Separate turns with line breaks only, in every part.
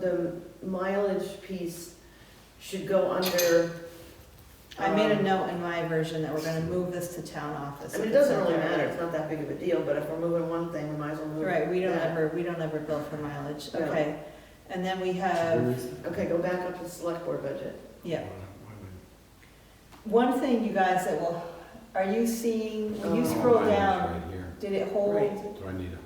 the mileage piece should go under,
I made a
Um,
note in my version that we're gonna move this to town office.
I mean, it doesn't really matter, it's not that big of a deal, but if we're moving one thing, we might as well move.
Right, we don't
that.
ever, we don't ever bill for mileage,
No.
okay. And then we have,
Okay, go back up to the select board budget.
yeah, one thing you guys that will, are you seeing, when you
Oh.
scroll down,
Right here.
did it
Right.
hold?
Do I need a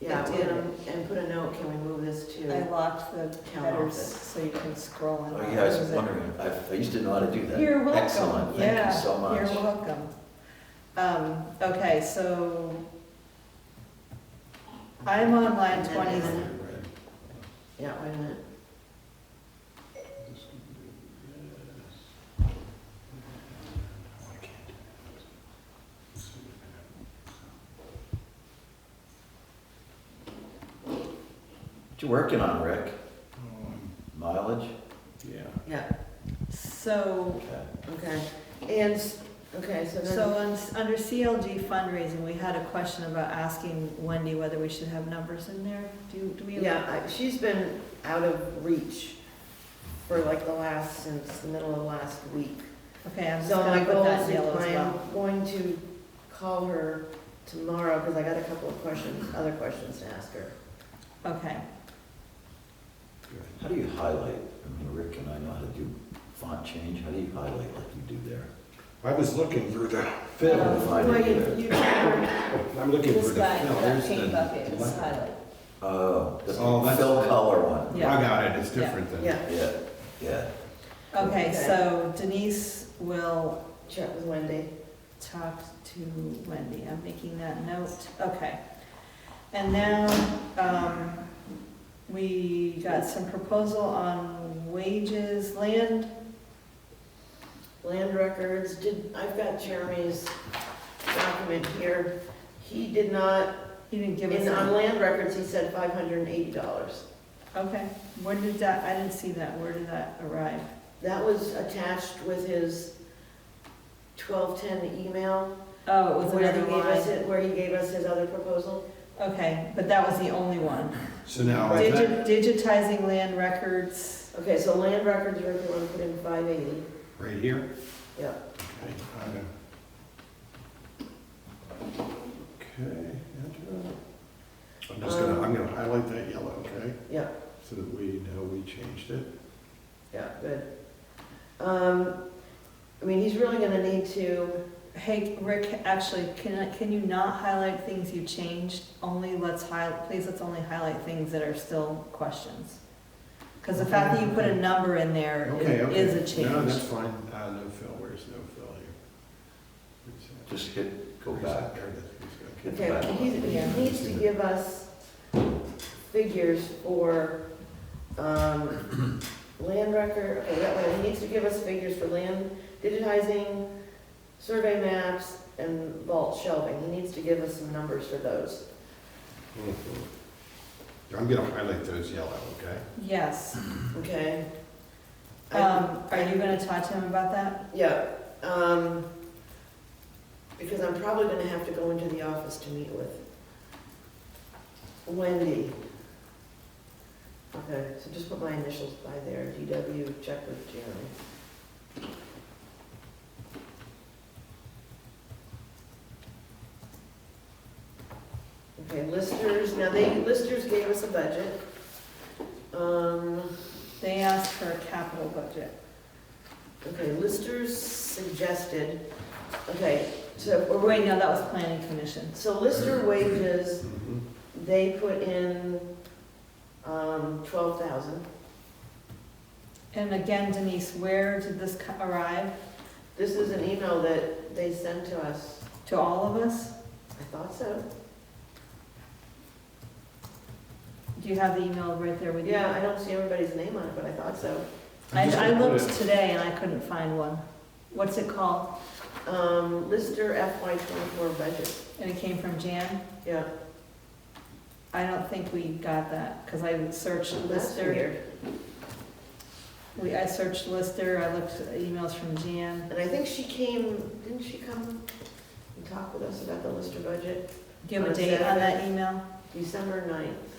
Yeah,
It did.
and, and put a note, can we move this
I
to?
locked the
Town
headers
office.
so you can scroll and.
Oh, yeah, I was
close it.
wondering, I, I used to know how to do that.
You're welcome.
Excellent, thank
Yeah,
you so much.
You're welcome. Um, okay, so I'm on line twenty,
highlight?
Yeah, wait a minute.
Oh,
What you working on, Rick? Mileage?
Oh, Yeah.
Yeah,
so,
Okay.
okay. And, s- okay, so
so
then,
on, under CLG fundraising, we had a question about asking Wendy whether we should have numbers in there. Do, do we?
yeah, I- she's been out of reach for like the last, since the middle of last week.
Okay, I'm just
So my
gonna put
goal
that
is,
in yellow as well.
I'm going to call her tomorrow, because I got a couple of questions, other questions to ask her.
Okay,
How do you highlight? I mean, Rick and I know how to do font change. How do you highlight like you do there?
I was looking for the
Um,
film.
find
Well,
it
you-
there.
you can-
I'm looking for the film. There's the- the left.
Oh, the
Oh, that's-
fill color one.
Yeah.
I got it, it's different than.
Yeah,
Yeah, yeah.
okay,
Okay.
so Denise will
check with Wendy.
talk to Wendy, I'm making that note, okay. And now, um, we got some proposal on wages, land,
Land records, did, I've got Jeremy's document here. He did not,
you didn't give us,
in, on
a-
land records, he said five hundred and eighty dollars.
okay, where did that, I didn't see that, where did that arrive?
That was attached with his twelve-ten email.
Oh, it was
where he
another
gave us
line,
it- Where he gave us his other proposal.
okay, but that was the only one.
So now I
Digi- Digitizing land records,
Okay, so land records, Rick, you wanna put in five eighty?
right here?
Yeah.
Okay. uh, Okay, enter. I'm just gonna, I'm gonna highlight that yellow, okay?
Yeah.
So that we know we changed it.
Yeah, good. Um, I mean, he's really gonna need to,
hey, Rick, actually, can, I- can you not highlight things you changed? Only let's highlight, please let's only highlight things that are still questions. Because the fact that you put a number in there i-
Okay, okay.
is a
No, that's
change.
fine, uh, no fill, where's no fill here? Where's that?
Just hit, go
Where's that?
back.
There it is,
Hit the
okay,
back one.
he's- he needs to give us figures for, um, land record, okay, that one, he needs to give us figures for land digitizing, survey maps, and vault shelving. He needs to give us some numbers for those.
okay. Mhm. I'm gonna highlight those yellow, okay?
Yes,
Okay. I-
um, are you gonna talk to him about that?
Yeah, um, because I'm probably gonna have to go into the office to meet with Wendy. Okay, so just put my initials by there, DW, check with Jeremy. Okay, listers, now they, listers gave us a budget. Um,
They asked for a capital budget.
Okay, listers suggested, okay, so, or
Wait,
wait,
no, that was planning commission.
so lister wages,
Mhm.
they put in, um, twelve thousand.
And again, Denise, where did this co- arrive?
This is an email that they sent to us,
To all of us?
I thought so.
Do you have the email right there with you?
Yeah, I don't see everybody's name on it, but I thought so.
I'm
I,
just
I
gonna put
looked
it-
today and I couldn't find one. What's it called?
Um, lister FY twenty-four budget,
And it came from Jan?
yeah,
I don't think we got that, because I searched
that's
Lister.
weird.
We, I searched Lister, I looked at emails from Jan.
And I think she came, didn't she come and talk with us about the lister budget?
Do you have a
On
date on
Saturday.
that email?
December ninth?